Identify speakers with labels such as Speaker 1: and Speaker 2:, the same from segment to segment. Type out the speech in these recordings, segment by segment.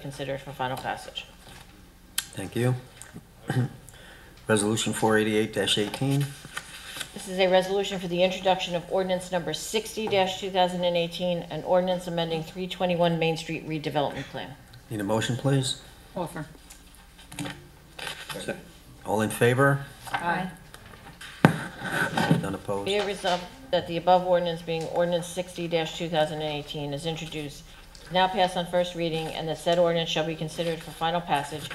Speaker 1: consider for final passage.
Speaker 2: Thank you. Resolution 488-18,
Speaker 1: This is a resolution for the introduction of ordinance number 60-2018, an ordinance amending 321 Main Street redevelopment plan.
Speaker 2: need a motion, please?
Speaker 3: Offer.
Speaker 2: All in favor?
Speaker 3: Aye.
Speaker 2: None opposed?
Speaker 1: Be it resolved that the above ordinance being ordinance 60-2018 is introduced, is now passed on first reading, and the said ordinance shall be considered for final passage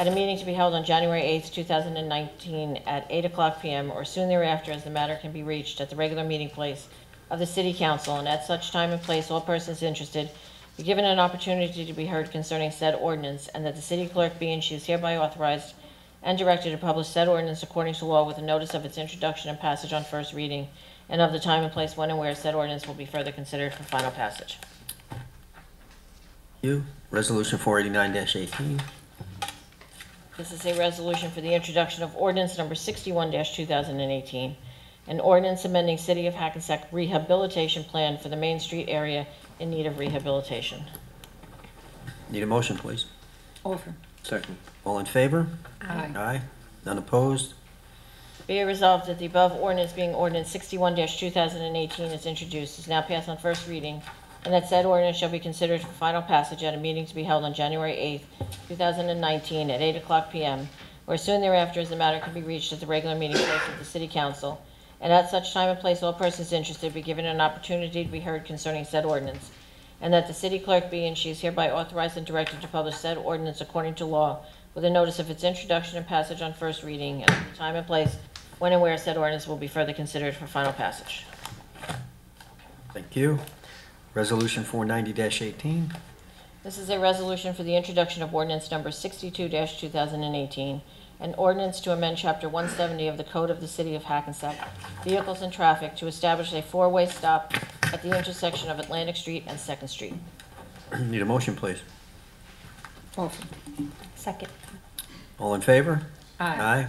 Speaker 1: at a meeting to be held on January 8th, 2019, at 8 o'clock PM or soon thereafter, as the matter can be reached at the regular meeting place of the city council, and at such time and place, all persons interested be given an opportunity to be heard concerning said ordinance, and that the city clerk be and she is hereby authorized and directed to publish said ordinance according to law with a notice of its introduction and passage on first reading, and of the time and place when and where said ordinance will be further considered for final passage.
Speaker 2: You. Resolution 489-18,
Speaker 1: This is a resolution for the introduction of ordinance number 61-2018, an ordinance amending City of Hackensack Rehabilitation Plan for the Main Street area in need of rehabilitation.
Speaker 2: need a motion, please?
Speaker 3: Offer.
Speaker 2: Second. All in favor?
Speaker 3: Aye.
Speaker 2: Aye. None opposed?
Speaker 1: Be it resolved that the above ordinance being ordinance sixty-one two thousand and eighteen is introduced, is now passed on first reading, and that said ordinance shall be considered for final passage at a meeting to be held on January eighth, two thousand and nineteen, at eight o'clock PM, or soon thereafter, as the matter can be reached at the regular meeting place of the city council, and at such time and place, all persons interested be given an opportunity to be heard concerning said ordinance, and that the city clerk be and she is hereby authorized and directed to publish said ordinance according to law with a notice of its introduction and passage on first reading and the time and place when and where said ordinance will be further considered for final passage.
Speaker 2: Thank you. Resolution 490-18,
Speaker 1: This is a resolution for the introduction of ordinance number 62-2018, an ordinance to amend Chapter 170 of the Code of the City of Hackensack, Vehicles and Traffic, to establish a four-way stop at the intersection of Atlantic Street and Second Street.
Speaker 2: need a motion, please?
Speaker 3: Offer.
Speaker 1: Second.
Speaker 2: All in favor?
Speaker 3: Aye.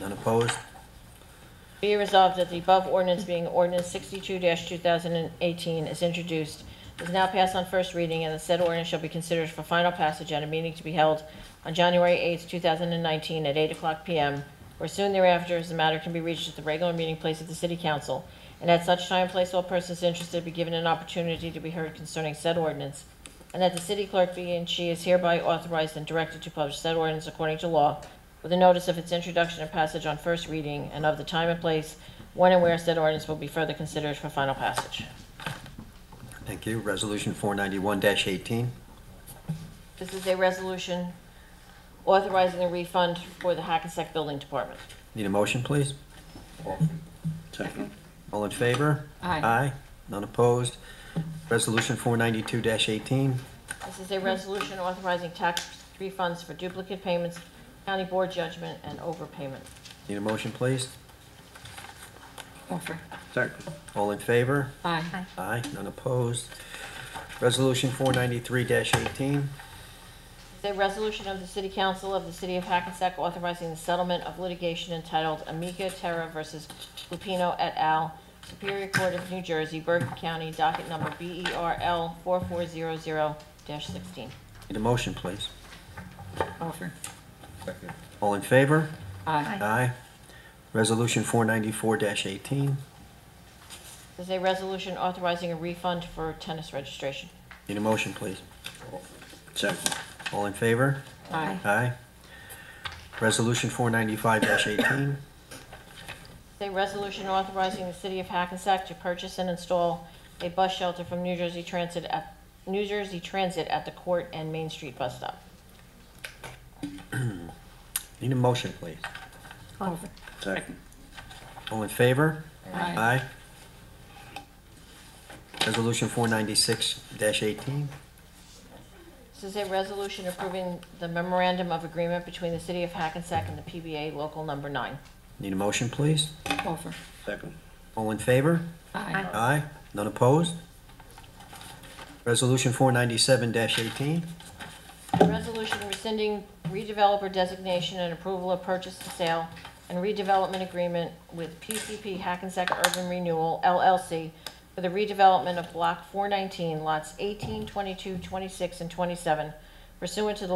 Speaker 2: None opposed?
Speaker 1: Be it resolved that the above ordinance being ordinance sixty-two two thousand and eighteen is introduced, is now passed on first reading, and the said ordinance shall be considered for final passage at a meeting to be held on January eighth, two thousand and nineteen, at eight o'clock PM, or soon thereafter, as the matter can be reached at the regular meeting place of the city council, and at such time and place, all persons interested be given an opportunity to be heard concerning said ordinance, and that the city clerk be and she is hereby authorized and directed to publish said ordinance according to law with a notice of its introduction and passage on first reading and of the time and place when and where said ordinance will be further considered for final passage.
Speaker 2: Thank you. Resolution 491-18,
Speaker 1: This is a resolution authorizing the refund for the Hackensack Building Department.
Speaker 2: need a motion, please?
Speaker 4: Second.
Speaker 2: All in favor?
Speaker 3: Aye.
Speaker 2: Aye. None opposed? Resolution 492-18,
Speaker 1: This is a resolution authorizing tax refunds for duplicate payments, county board judgment, and overpayment.
Speaker 2: need a motion, please?
Speaker 3: Offer.
Speaker 4: Second.
Speaker 2: All in favor?
Speaker 3: Aye.
Speaker 2: Aye. None opposed? Resolution 493-18,
Speaker 1: It's a resolution of the City Council of the City of Hackensack authorizing the settlement of litigation entitled Amica Terra versus Lupino et al., Superior Court of New Jersey, Bergen County, docket number E BERL 4400-16.
Speaker 2: need a motion, please?
Speaker 3: Offer.
Speaker 4: Second.
Speaker 2: All in favor?
Speaker 3: Aye.
Speaker 2: Aye. Resolution 494-18,
Speaker 1: This is a resolution authorizing a refund for tennis registration.
Speaker 2: need a motion, please?
Speaker 4: Second.
Speaker 2: All in favor?
Speaker 3: Aye.
Speaker 2: Aye. Resolution 495-18,
Speaker 1: It's a resolution authorizing the City of Hackensack to purchase and install a bus shelter from New Jersey Transit at, New Jersey Transit at the Court and Main Street Bus Stop.
Speaker 2: need a motion, please?
Speaker 3: Offer.
Speaker 4: Second.
Speaker 2: All in favor?
Speaker 3: Aye.
Speaker 2: Aye. Resolution 496-18,
Speaker 1: This is a resolution approving the memorandum of agreement between the City of Hackensack and the PBA Local Number 9.
Speaker 2: need a motion, please?
Speaker 3: Offer.
Speaker 4: Second.
Speaker 2: All in favor?
Speaker 3: Aye.
Speaker 2: Aye. None opposed? Resolution 497-18,
Speaker 1: A Resolution rescinding redeveloper designation and approval of purchase and sale and redevelopment agreement with PCP Hackensack Urban Renewal LLC for the redevelopment of Block 419, lots 18, 22, 26, and 27 pursuant to the